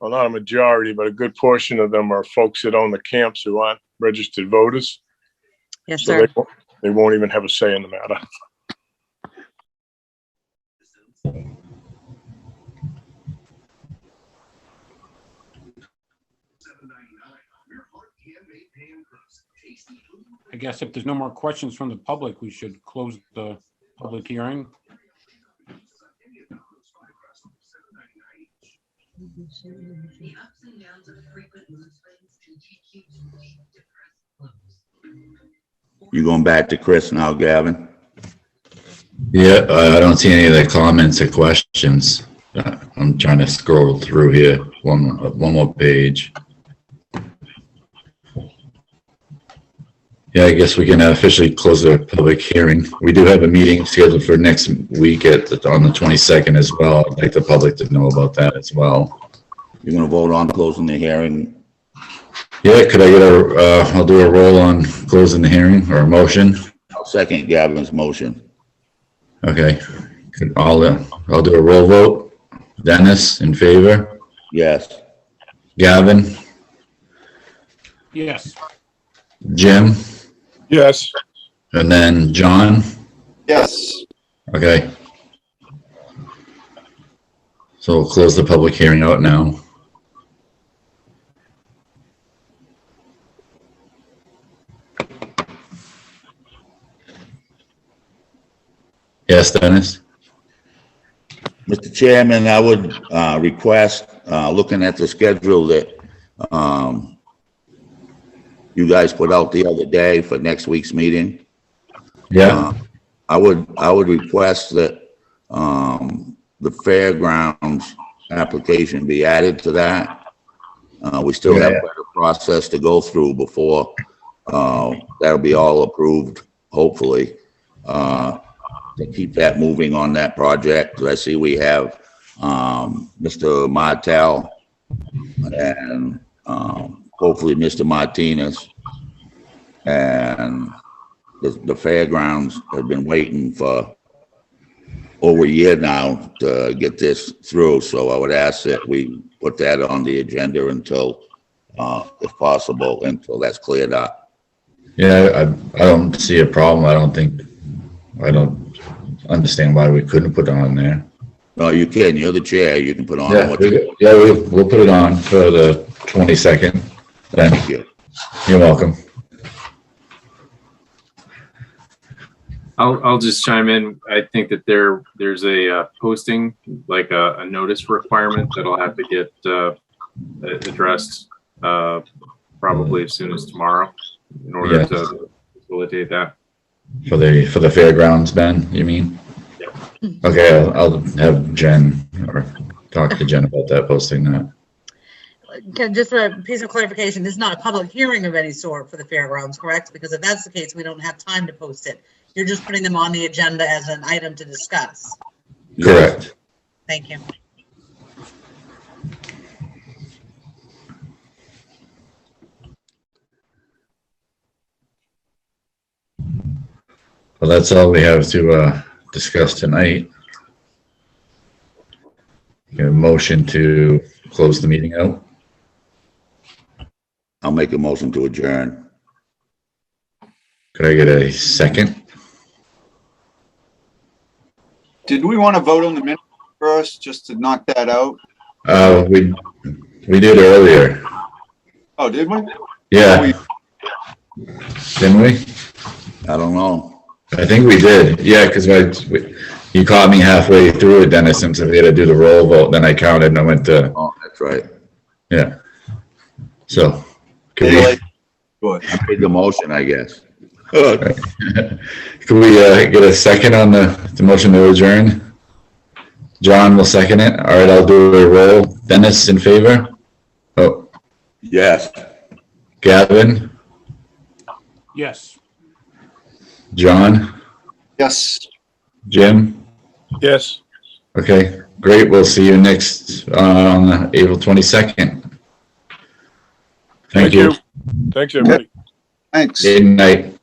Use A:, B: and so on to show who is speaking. A: well, not a majority, but a good portion of them are folks that own the camps who aren't registered voters.
B: Yes,
A: So they
B: sir.
A: won't, they won't even have a say in the matter.
C: I guess if there's no more questions from the public, we should close the public hearing.
D: You going back to Chris now, Gavin?
E: Yeah, I I don't see any of the comments or questions. Uh, I'm trying to scroll through here, one, uh, one more page. Yeah, I guess we can officially close the public hearing. We do have a meeting scheduled for next week at, on the 22nd as well. I'd like the public to know about that as well.
D: You're gonna vote on closing the hearing?
E: Yeah, could I get a, uh, I'll do a roll on closing the hearing or a motion?
D: I'll second Gavin's motion.
E: Okay, Could- I'll, uh, I'll do a roll vote. Dennis, in favor?
D: Yes.
E: Gavin?
C: Yes,
E: Jim,
A: Yes,
E: and then John.
F: Yes.
E: Okay. So we'll close the public hearing out now. Yes, Dennis?
D: Mr. Chairman, I would uh, request, uh, looking at the schedule that um, you guys put out the other day for next week's meeting,
E: Yeah,
D: I would, I would request that um, the fairgrounds application be added to that. Uh, We still have
E: Yeah.
D: quite a process to go through before uh, that'll be all approved, hopefully. Uh, To keep that moving on that project, I see we have um, Mr. Martel and um, hopefully Mr. Martinez. And the, the fairgrounds have been waiting for over a year now to get this through, so I would ask that we put that on the agenda until, uh, if possible, until that's cleared up.
E: yeah, I, I don't see a problem. I don't think, I don't understand why we couldn't put it on there.
D: No, you can, you're the chair, you can put on
E: Yeah,
D: what you
E: we- yeah, we- we'll put it on for the 22nd. Then,
D: thank you.
E: you're welcome.
G: I'll, I'll just chime in. I think that there, there's a uh, posting, like a, a notice requirement that'll have to get uh, addressed uh, probably as soon as tomorrow in order
E: Yes.
G: to facilitate that.
E: For the, for the fairgrounds, Ben, you mean? Okay, I'll, I'll have Jen or talk to Jen about that, posting that.
B: Can- Just for a piece of clarification, this is not a public hearing of any sort for the fairgrounds, correct? Because if that's the case, we don't have time to post it. You're just putting them on the agenda as an item to discuss.
E: Correct.
B: Thank you.
E: Well, that's all we have to, uh, discuss tonight. Get a motion to close the meeting out.
D: I'll make a motion to adjourn.
E: Could I get a second?
F: Did we want to vote on the minutes first, just to knock that out?
E: Uh, we, we did earlier.
F: Oh, did we?
E: Yeah,
D: Oh,
E: didn't we?
D: I don't know.
E: I think we did, yeah, because I, we- you caught me halfway through it, Dennis, and said we had to do the roll vote, then I counted and I went to,
D: Oh, that's right.
E: yeah. So, could
F: Daylight.
E: we,
F: Good.
D: I made the motion, I guess.
E: could we, uh, get a second on the, the motion to adjourn? John will second it, all right, I'll do a roll, Dennis in favor? Oh,
D: Yes.
E: Gavin,
C: yes.
E: John,
F: Yes.
E: Jim,
A: yes.
E: okay, great, we'll see you next, uh, on April twenty-second. Thank you,
A: Thanks, everybody.
F: Thanks.
E: good night.